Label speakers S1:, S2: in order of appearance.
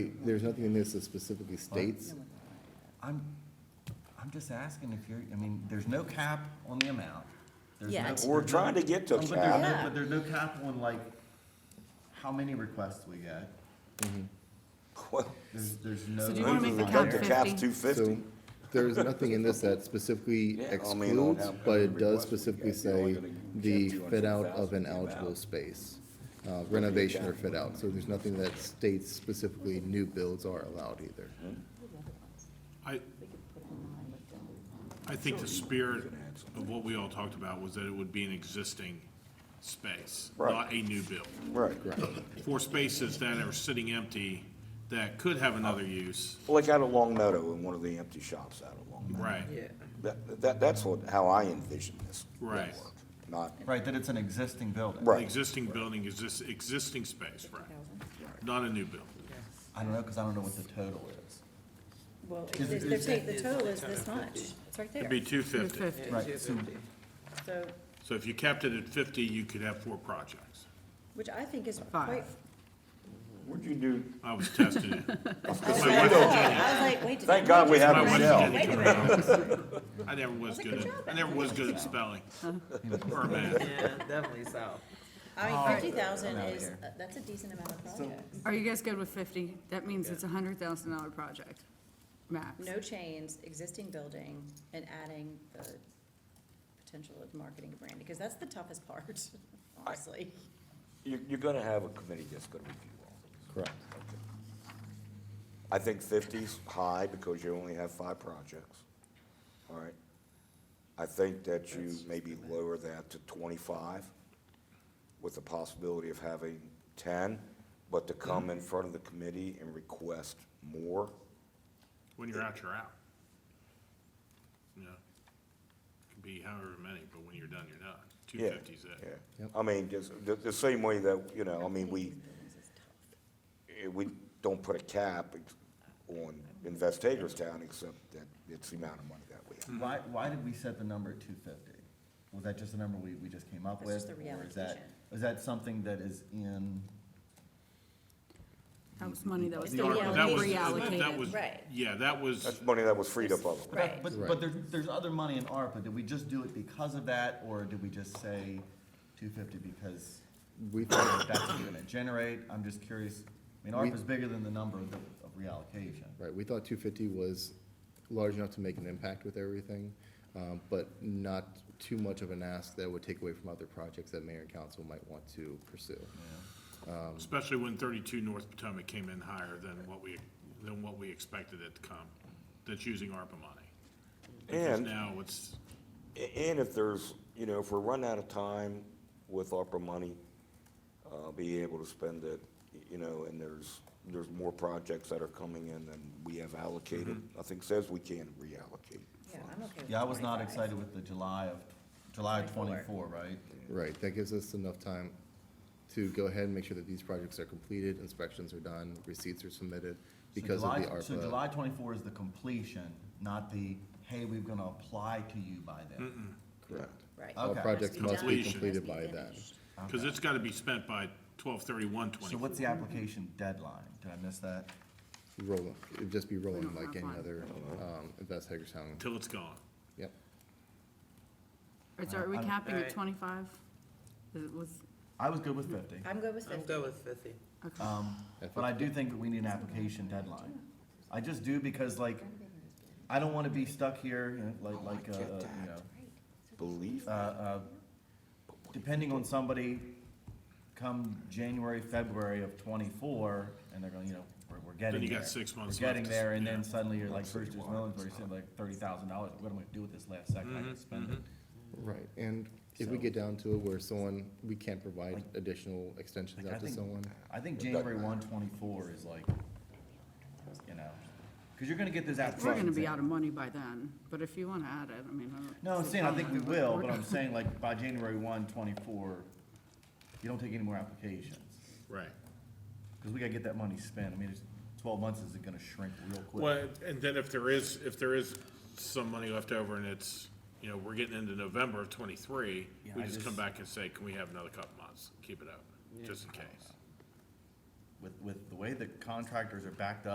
S1: There's nothing in this that specifically states,
S2: I'm, I'm just asking if you're, I mean, there's no cap on the amount. There's
S3: Yeah,
S2: no-
S3: it's-
S4: We're trying to get to a
S2: But there's no-
S3: Yeah.
S2: But there's no cap on like, how many requests we get.
S4: Well,
S2: There's, there's no.
S3: do you wanna make the
S4: I think
S3: cap
S4: The cap's
S3: 50?
S4: two
S1: so
S4: fifty.
S1: there's nothing in this that specifically
S4: Yeah, I mean, on
S1: excludes,
S4: how-
S1: but it
S4: how many
S1: does
S4: requests we
S1: specifically
S4: get, you're only
S1: say
S4: gonna get
S1: the
S4: 200,000
S1: fit out of an
S4: to the
S1: eligible
S4: amount.
S1: space, uh, renovation or fit out. So there's nothing that states specifically new builds are allowed either.
S5: I, I think the spirit of what we all talked about was that it would be an existing space,
S4: Right.
S5: not a new build.
S4: Right.
S5: For spaces that are sitting empty that could have another use,
S4: Like out of Long Meadow in one of the empty shops out of Long Meadow.
S5: right?
S4: That, that, that's what, how I envision this. would
S5: Right.
S4: work, Not,
S2: Right, that it's an existing building.
S4: Right.
S5: Existing building, exist, existing space, right? Not a new build.
S2: I don't know, cause I don't know what the total is.
S6: Well,
S2: Is
S6: they're
S2: it-
S6: they're saying the total is this much, it's right
S5: It'd
S6: there,
S5: be two fifty.
S2: Right, so,
S6: so,
S5: So if you kept it at fifty, you could have four projects.
S6: which I think is
S3: Five.
S6: quite.
S4: what'd you do?
S5: I was testing it.
S6: I was
S5: wife-
S6: like, wait, did I
S4: Thank God we
S6: just-
S4: have
S5: My wife
S4: Michelle.
S5: did it correct. I never was good at, I never was good at spelling or math.
S7: Yeah, definitely so.
S6: I
S2: Oh,
S6: mean, fifty thousand
S2: I'm outta
S6: is,
S2: here.
S6: uh, that's a decent amount of projects,
S3: Are you guys good with fifty? That means it's a hundred thousand dollar project, max.
S6: no chains, existing building, and adding the potential of marketing brand, because that's the toughest part, honestly.
S4: You're, you're gonna have a committee that's gonna review all this.
S1: Correct.
S4: I think 50's high because you only have five projects, all right? I think that you maybe lower that to twenty-five with the possibility of having ten, but to come in front of the committee and request more.
S5: When you're out, you're out. You know, could be however many, but when you're done, you're done. Two
S4: Yeah,
S5: fifty's it.
S4: Yeah, I mean, just, the, the same way that, you know, I mean, we, eh, we don't put a cap on Invest Hagerstown except that it's the amount of money that we have.
S2: why, why did we set the number at two fifty? Was that just a number we, we just came up with?
S6: That's just the
S2: or is that-
S6: reallocation.
S2: Is that something that is in,
S3: That was money that was
S6: The
S3: taken
S6: R-
S3: out,
S5: That was- That
S3: reallocated.
S5: was,
S6: Right.
S5: yeah, that was,
S4: That's money that was freed up otherwise.
S6: Right,
S2: but, but
S1: Right.
S2: there's, there's other money in ARPA, did we just do it because of that, or did we just say two fifty because
S1: We,
S2: that's what we're gonna generate? I'm just curious, I mean,
S1: We-
S2: ARPA's bigger than the number of, the- of reallocation.
S1: right, we thought two fifty was large enough to make an impact with everything, um, but not too much of an ask that would take away from other projects that mayor and council might want to pursue.
S5: especially when thirty-two North Potomac came in higher than what we, than what we expected it to come. That's using ARPA money. Because
S4: And-
S5: Now it's,
S4: A- And if there's, you know, if we're running out of time with ARPA money, uh, be able to spend it, y- you know, and there's, there's more projects that are coming in than we have allocated. Nothing says we can't reallocate.
S6: yeah, I'm okay with
S2: Yeah, I was not
S6: 25.
S2: excited with the July of, July of twenty-four,
S6: Twenty-four.
S2: right?
S1: Right, that gives us enough time to go ahead and make sure that these projects are completed, inspections are done, receipts are submitted
S2: So
S1: because of
S2: July-
S1: the
S2: So
S1: ARPA.
S2: July twenty-four is the completion, not the, hey, we're gonna apply to you by then.
S1: Correct.
S6: Right.
S1: All
S2: Okay.
S1: projects
S6: Must be
S1: must
S6: done.
S1: be
S5: Completion.
S1: completed
S6: Must
S1: by
S6: be
S1: then.
S6: finished.
S5: because it's gotta be spent by twelve thirty-one
S2: So
S5: twenty-four.
S2: what's the application deadline? Did I miss that?
S1: Rolling, it'd just be rolling
S3: don't
S1: like
S3: have
S1: any
S3: one.
S1: other,
S2: Oh,
S1: um, Invest Hagerstown,
S5: Till it's gone.
S1: yep.
S3: Or so Are we
S2: I'm-
S3: capping at
S7: Right.
S3: twenty-five? It was,
S2: I was good with fifty.
S6: I'm good with
S7: I'm
S6: fifty.
S7: good with fifty.
S3: okay.
S2: Um, but I do think that we need an application deadline. I just do because like, I don't wanna be stuck here, you know, like, like, uh,
S4: Oh, get
S2: you
S4: that.
S2: know,
S4: Believe
S2: uh, uh, depending on somebody come January, February of twenty-four, and they're going, you know, we're, we're getting there.
S5: you got six months
S2: We're getting
S5: left to s-
S2: there, and then
S5: yeah.
S2: suddenly you're like, first there's millions, where you're sitting like thirty thousand dollars, what am I gonna do with this last second,
S5: Mm-hmm,
S2: I can spend it.
S1: Right, and if we
S2: So-
S1: get down to it where someone, we can't provide additional extensions
S2: Like, I
S1: out to
S2: think-
S1: someone,
S2: I think January one twenty-four is like, you know, cause you're gonna get those applications.
S3: We're gonna be
S2: in.
S3: out of money by then, but if you wanna add it, I mean, I don't.
S2: No, I'm
S3: see a
S2: saying, I
S3: problem
S2: think we
S3: with it.
S2: will,
S3: We're
S2: but I'm
S3: gonna-
S2: saying like by January one, twenty-four, you don't take any more applications.
S5: Right.
S2: Cause we gotta get that money spent. I mean, it's, twelve months is gonna shrink real quick.
S5: Well, and then if there is, if there is some money left over and it's, you know, we're getting into November of twenty-three,
S2: Yeah,
S5: we
S2: I
S5: just come
S2: just-
S5: back and say, can we have another couple months, keep it up, just in case.
S2: with, with the way the contractors are backed up.